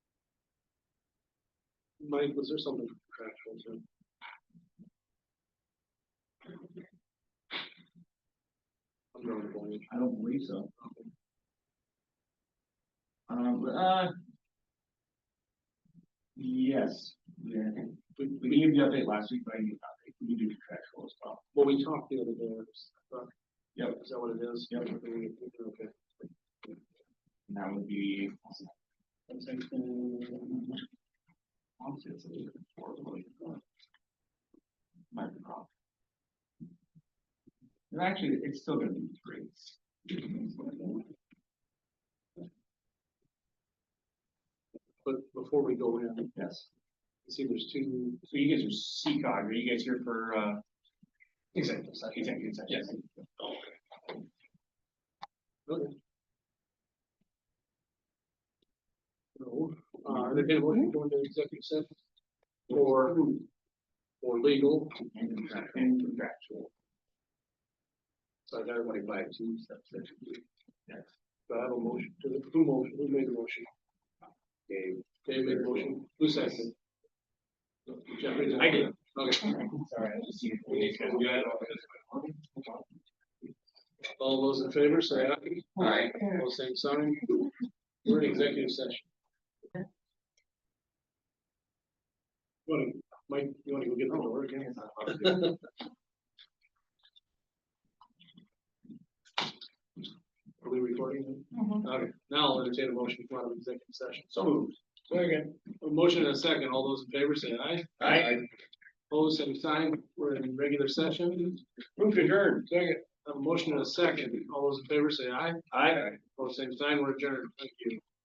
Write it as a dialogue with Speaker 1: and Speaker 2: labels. Speaker 1: Mike, was there something contractual to? I'm drawing a blank.
Speaker 2: I don't believe so. Um, but, uh. Yes, yeah, I think we, we gave you the update last week, but I gave you an update. we do contractual as well.
Speaker 1: Well, we talked the other day, I thought.
Speaker 2: Yep.
Speaker 1: Is that what it is?
Speaker 2: Yep.
Speaker 1: Okay.
Speaker 2: And that would be. One section. Honestly, it's a little bit more of like, uh, Might be wrong. And actually, it's still gonna be three.
Speaker 1: But before we go in,
Speaker 2: Yes.
Speaker 1: I see there's two,
Speaker 2: So you guys are CCOG, are you guys here for, uh? Executive session. Executive session. Yes.
Speaker 1: okay. No, uh, are they going to go into executive session? Or, or legal,
Speaker 2: And contract- and contractual.
Speaker 1: so I got everybody by two steps.
Speaker 2: Yes.
Speaker 1: Do I have a motion to the, who motion, who made the motion? Dave. Dave made the motion, who seconded? Jeffrey.
Speaker 2: I did.
Speaker 1: Okay,
Speaker 2: Sorry, I just see.
Speaker 1: all those in favor, say aye.
Speaker 2: Alright.
Speaker 1: All same sign. We're in executive session. Wanna- Mike, you wanna go get the door again? Are we recording?
Speaker 3: Mhm.
Speaker 1: Okay, now I'll entertain a motion to come out of executive session. So moved. Second. A motion and a second. All those in favor say aye.
Speaker 2: Aye.
Speaker 1: Opposed, same sign. We're in regular session. Move to adjourn. Second. A motion and a second. All those in favor say aye.
Speaker 2: Aye.
Speaker 1: Opposed, same sign. We're adjourned. Thank you.